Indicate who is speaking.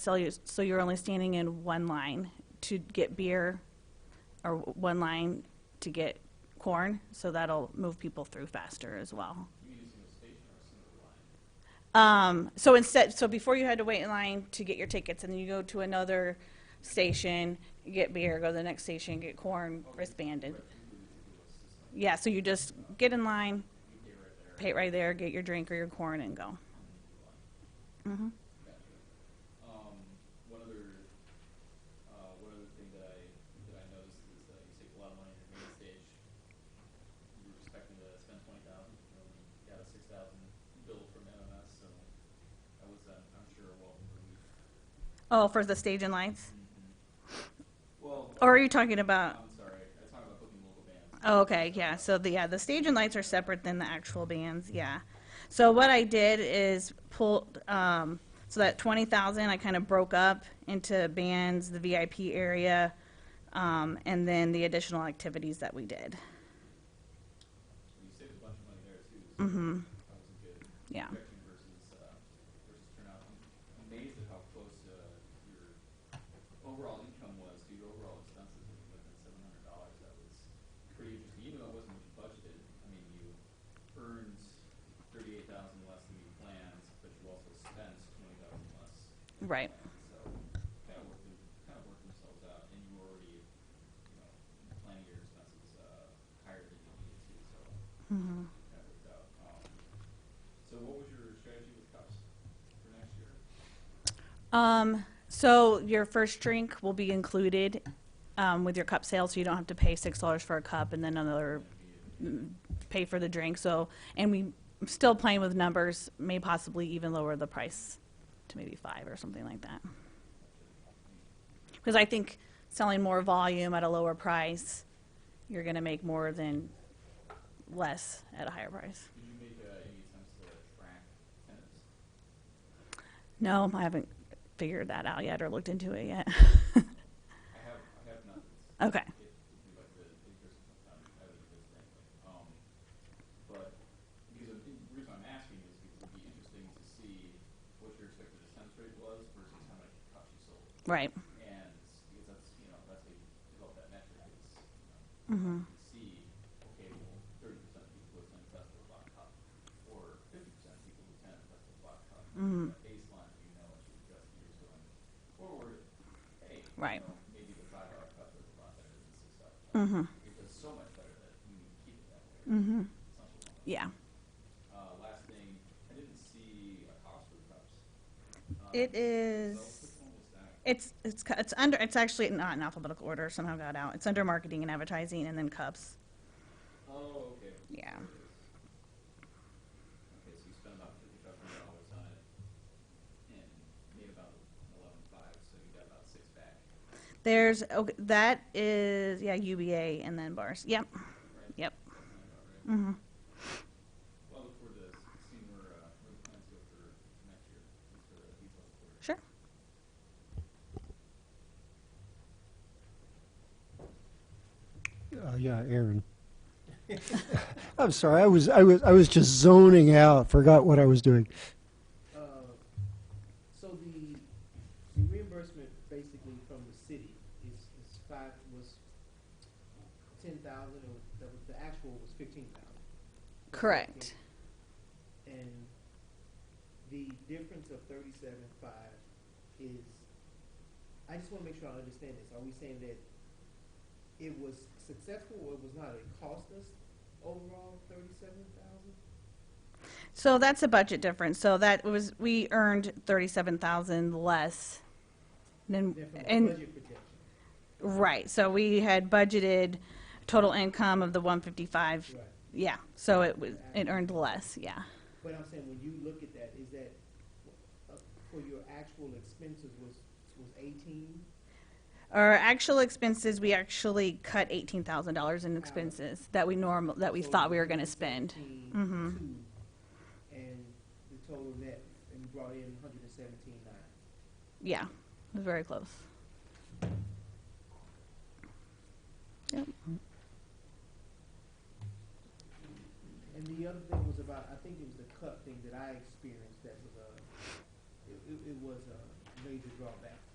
Speaker 1: sell you, so you're only standing in one line to get beer or one line to get corn, so that'll move people through faster as well. Um, so instead, so before you had to wait in line to get your tickets and then you go to another station, get beer, go to the next station, get corn, wristbanded. Yeah, so you just get in line, pay it right there, get your drink or your corn and go. Mm-hmm.
Speaker 2: Um, one other, uh, one other thing that I, that I noticed is that you save a lot of money in the main stage. You were expecting to spend twenty thousand, you only got a six thousand bill from MMS, so I was, uh, I'm sure, well, relieved.
Speaker 1: Oh, for the stage and lights?
Speaker 2: Well,
Speaker 1: Or are you talking about?
Speaker 2: I'm sorry, I talked about booking local bands.
Speaker 1: Oh, okay, yeah, so the, yeah, the stage and lights are separate than the actual bands, yeah. So what I did is pulled, um, so that twenty thousand, I kind of broke up into bands, the VIP area, um, and then the additional activities that we did,
Speaker 2: You saved a bunch of money there too, so
Speaker 1: Mm-hmm.
Speaker 2: that was a good
Speaker 1: yeah.
Speaker 2: projection versus, uh, versus turnout. I'm amazed at how close, uh, your overall income was to your overall expenses, when you went at seven hundred dollars, that was pretty interesting, even though it wasn't what you budgeted, I mean, you earned thirty-eight thousand less than you planned, but you also spent twenty thousand less. than you
Speaker 1: Right.
Speaker 2: planned. So, kind of worked, it- kind of worked themselves out, and you were already, you know, planning your expenses, uh, higher than you needed to, so.
Speaker 1: Mm-hmm.
Speaker 2: That worked out, um, so what was your strategy with cups for next year?
Speaker 1: Um, so your first drink will be included, um, with your cup sale, so you don't have to pay six dollars for a cup and then another, mm, pay for the drink, so, and we, I'm still playing with numbers, may possibly even lower the price to maybe five or something like that. Because I think selling more volume at a lower price, you're gonna make more than less at a higher price.
Speaker 2: Did you make uh, any attempts to track tenants?
Speaker 1: No, I haven't figured that out yet or looked into it yet.
Speaker 2: I have, I have not.
Speaker 1: Okay.
Speaker 2: If if you'd like to, if there's some time, I would do this anyway. Um, but, because of- the reason I'm asking is because it'd be interesting to see what your expected attendance rate was versus how many cups you sold.
Speaker 1: Right.
Speaker 2: And, because that's, you know, that's how you develop that metric is, you know,
Speaker 1: Mm-hmm.
Speaker 2: can see, okay, well, thirty percent of people attend Festival Black Cup, or fifty percent of people attend Festival Black Cup.
Speaker 1: Mhm.
Speaker 2: That baseline, that you know, as you adjust years going forward, hey, you
Speaker 1: Right.
Speaker 2: know, maybe the five dollar cup is a lot better than the six dollar cup.
Speaker 1: Mm-hmm.
Speaker 2: It does so much better that we need to keep it that way.
Speaker 1: Mm-hmm.
Speaker 2: Something like
Speaker 1: Yeah.
Speaker 2: that. Uh, last thing, I didn't see a cost for cups. Um,
Speaker 1: It
Speaker 2: So,
Speaker 1: is.
Speaker 2: which one was that?
Speaker 1: It's it's cu- it's under it's actually not in alphabetical order. Somehow got out. It's under marketing and advertising, and then cups.
Speaker 2: Oh, okay.
Speaker 1: Yeah.
Speaker 2: Okay, so you spent about fifty-five hundred dollars on it and made about eleven-five, so you got about six back,
Speaker 1: There's okay, that is yeah UBA and then bars. Yep.
Speaker 2: right?
Speaker 1: Yep.
Speaker 2: Something like that, right?
Speaker 1: Mm-hmm.
Speaker 2: Well, I look forward to seeing where, uh, where the plans go for next year, Thanks for the detailed report.
Speaker 1: Sure.
Speaker 3: Uh, yeah, Aaron. I'm sorry. I was I was I was just zoning out. Forgot what I was doing.
Speaker 4: Uh, So the, the reimbursement basically from the city is, is five, was ten thousand, or the, the actual was fifteen thousand.
Speaker 1: Correct.
Speaker 4: And the difference of thirty-seven five is, I just wanna make sure I understand this, are we saying that it was successful or it was not, it cost us overall thirty-seven thousand?
Speaker 1: So that's a budget difference. So that was we earned thirty seven thousand less than
Speaker 4: Then from the
Speaker 1: and
Speaker 4: budget projection,
Speaker 1: right. So we had budgeted total income of the one fifty five.
Speaker 4: right?
Speaker 1: Yeah. So it was it earned less. Yeah.
Speaker 4: But I'm saying, when you look at that, is that, uh, for your actual expenses was, was eighteen?
Speaker 1: Our actual expenses, we actually cut eighteen thousand dollars in expenses that we normal, that we thought we were gonna spend. Mhm.
Speaker 4: And the total net, and you brought in hundred and seventeen nine.
Speaker 1: Yeah, it was very close.
Speaker 4: And the other thing was about, I think it was the cup thing that I experienced that was a, it, it, it was a major drawback